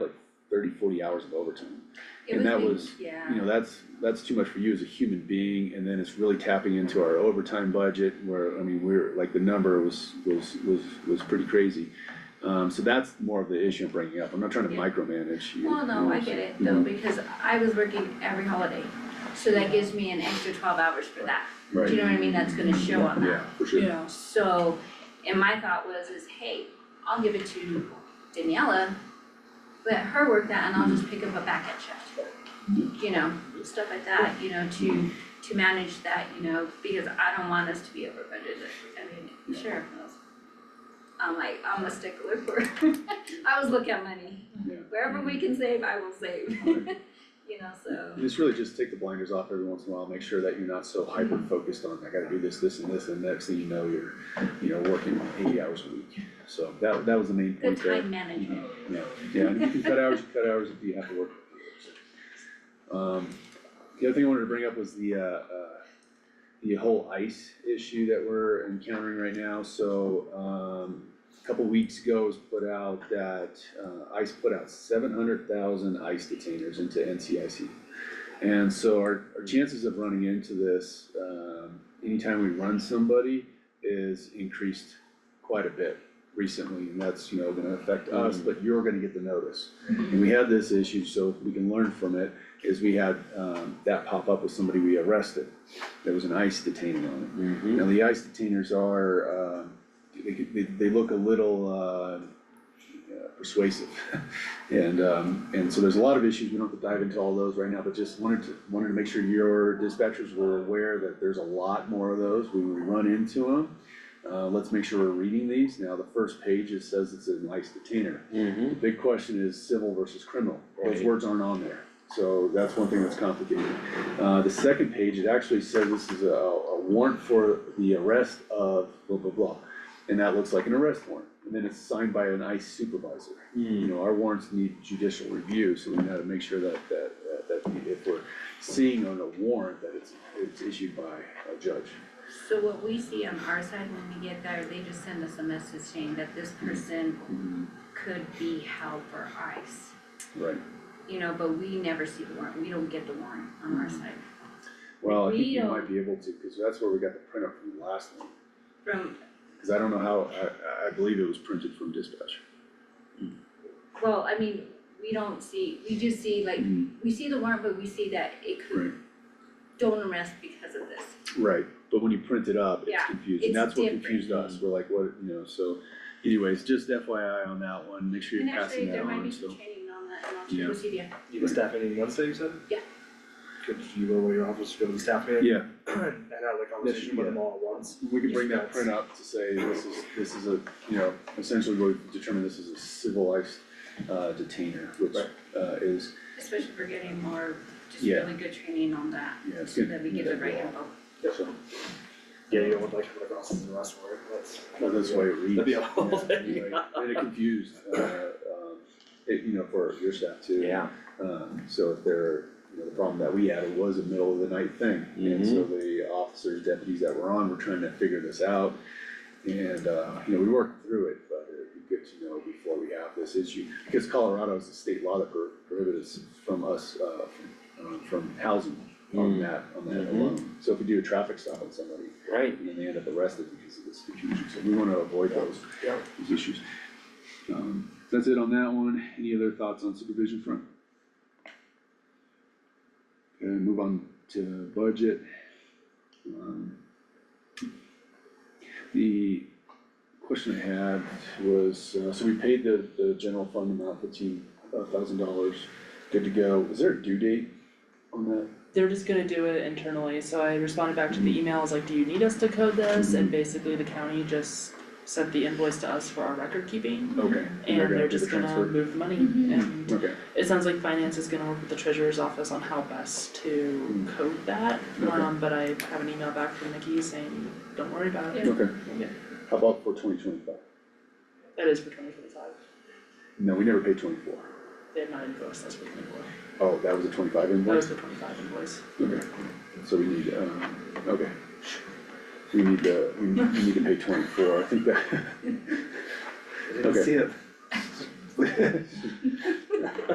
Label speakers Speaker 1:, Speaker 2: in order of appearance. Speaker 1: forty hours of overtime.
Speaker 2: It
Speaker 1: And that
Speaker 2: the-
Speaker 1: was, You
Speaker 2: Yeah,
Speaker 1: know, that's, that's too much for you as a human being, and then it's really tapping into our overtime budget where, I mean, we're, like, the number was, was, was, was pretty crazy. Um, so that's more of the issue I'm bringing up, I'm not trying to
Speaker 2: Yeah.
Speaker 1: micromanage you.
Speaker 2: well, no, I get it though,
Speaker 1: Mhm.
Speaker 2: because I was working every holiday, so that gives me an extra twelve hours for that. Do you know what I mean? That's gonna show on that.
Speaker 1: Yeah, for sure.
Speaker 3: Yeah,
Speaker 2: So, and my thought was is, hey, I'll give it to Daniela, let her work that and I'll just pick up a back end shift.
Speaker 1: Mm-hmm.
Speaker 2: You know, stuff like that, you know, to, to manage that, you know, because I don't want us to be over budgeted. I mean, sure, that's- I'm like, I'm a stickler for, I always look at money.
Speaker 1: Yeah.
Speaker 2: Wherever we can save, I will save, you know, so.
Speaker 1: And it's really just take the blinders off every once in a while, make sure that you're not so hyper focused on, I gotta do this, this and this, and next thing you know, you're, you know, working eighty hours a week. So that, that was the main
Speaker 2: Good
Speaker 1: point there.
Speaker 2: time management.
Speaker 1: Yeah, yeah, and if you can cut hours, you cut hours if you have to work. Um, the other thing I wanted to bring up was the, uh, uh, the whole ice issue that we're encountering right now, so, um, a couple weeks ago was put out that, uh, ICE put out seven hundred thousand ICE detainers into NCIC. And so our, our chances of running into this, um, anytime we run somebody is increased quite a bit recently, and that's, you know, gonna affect us, but you're gonna get the notice. And we had this issue, so we can learn from it, is we had, um, that pop up with somebody we arrested. There was an ICE detainer on it.
Speaker 4: Mm-hmm.
Speaker 1: Now, the ice detainers are, uh, they, they, they look a little, uh, persuasive. And, um, and so there's a lot of issues, we don't have to dive into all those right now, but just wanted to, wanted to make sure your dispatchers were aware that there's a lot more of those, when we run into them. Uh, let's make sure we're reading these, now the first page, it says it's an ice detainer.
Speaker 4: Mm-hmm.
Speaker 1: The big question is civil versus criminal, those
Speaker 4: Right.
Speaker 1: words aren't on there, so that's one thing that's complicated. Uh, the second page, it actually says this is a, a warrant for the arrest of blah, blah, blah. And that looks like an arrest warrant, and then it's signed by an ICE supervisor. You know, our warrants need judicial review, so we gotta make sure that, that, that, that if we're seeing on a warrant that it's, it's issued by a judge.
Speaker 2: So what we see on our side when we get there, they just send us a message saying that this person could be held for ICE.
Speaker 1: Right,
Speaker 2: You know, but we never see the warrant, we don't get the warrant on
Speaker 1: Mm-hmm.
Speaker 2: our side.
Speaker 1: well, I think you
Speaker 2: Real.
Speaker 1: might be able to, cause that's where we got the printout from the last one.
Speaker 2: From,
Speaker 1: Cause I don't know how, I, I believe it was printed from dispatch.
Speaker 2: well, I mean, we don't see, we just see like, we see the warrant, but we see that it
Speaker 1: Right,
Speaker 2: could, don't arrest because of this.
Speaker 1: right, but when you print it up, it's
Speaker 2: Yeah,
Speaker 1: confusing,
Speaker 2: it's
Speaker 1: that's what
Speaker 2: different.
Speaker 1: confused us, we're like, what, you know, so anyways, just FYI on that one, make sure
Speaker 2: And
Speaker 1: you're passing that
Speaker 2: actually, there might
Speaker 1: on,
Speaker 2: be
Speaker 1: so.
Speaker 2: some training on that, and I'll
Speaker 1: Yeah.
Speaker 2: check with CBA.
Speaker 5: You have a staff meeting Wednesday, you said?
Speaker 2: Yeah.
Speaker 5: Could you go to your office, go to the staff meeting?
Speaker 1: Yeah,
Speaker 5: And have the conversation with them all at once?
Speaker 1: we could bring that
Speaker 5: Yes.
Speaker 1: print up to say this is, this is a, you know, essentially we've determined this is a civilized uh detainer, which
Speaker 5: Right.
Speaker 1: uh is,
Speaker 2: Especially for getting more, just
Speaker 1: Yeah.
Speaker 2: really good training on that,
Speaker 1: yeah, it's
Speaker 2: so
Speaker 1: good.
Speaker 2: that we get the right info.
Speaker 1: So,
Speaker 5: Yeah, you don't want like come across as the rest word, that's.
Speaker 1: well, that's the way it reads.
Speaker 5: That'd be a whole
Speaker 1: yeah,
Speaker 5: thing.
Speaker 1: anyway, And it confused, uh um, it, you know, for your staff too.
Speaker 4: Yeah.
Speaker 1: Um, so if there, you know, the problem that we had, it was a middle of the night thing, and so the officers, deputies that were on were trying to figure this out. And, uh, you know, we worked through it, but it'd be good to know before we have this issue, because Colorado is a state law that pro- prohibits from us, uh, from, um, from housing on
Speaker 4: Mm.
Speaker 1: that, on that
Speaker 4: Mhm.
Speaker 1: alone. So if we do a traffic stop on somebody,
Speaker 4: Right.
Speaker 1: and then they end up arrested because of this confusion, so we wanna avoid those,
Speaker 5: Yeah.
Speaker 1: those issues. Um, that's it on that one, any other thoughts on supervision front? Okay, move on to budget. Um, The question I had was, uh, so we paid the, the general fund amount fifteen uh, thousand dollars, good to go, is there a due date on that?
Speaker 3: they're just gonna do it internally, so I responded back to the email, I was like, do you need us to code this? And basically the county just sent the invoice to us for our record keeping,
Speaker 1: Okay. gonna
Speaker 3: and they're
Speaker 1: do the
Speaker 3: just gonna
Speaker 1: transfer?
Speaker 3: move the money,
Speaker 2: Mhm.
Speaker 3: and
Speaker 1: Okay,
Speaker 3: it sounds like finance is gonna work with the treasurer's office on how best to
Speaker 1: Mm.
Speaker 3: code that,
Speaker 1: Okay.
Speaker 3: um, but I have an email back from Nikki saying, don't worry about it,
Speaker 2: Yeah.
Speaker 1: okay,
Speaker 3: Yeah.
Speaker 1: how about for twenty twenty-five?
Speaker 3: that is for twenty twenty-five,
Speaker 1: No, we never paid twenty-four.
Speaker 3: they have not invoiced us for twenty-four,
Speaker 1: Oh, that was a twenty-five
Speaker 3: that was
Speaker 1: invoice?
Speaker 3: the twenty-five invoice.
Speaker 1: Okay, so we need, um, okay. We need to, we need we need to pay twenty-four, I think that.
Speaker 5: I didn't
Speaker 1: Okay.
Speaker 5: see it.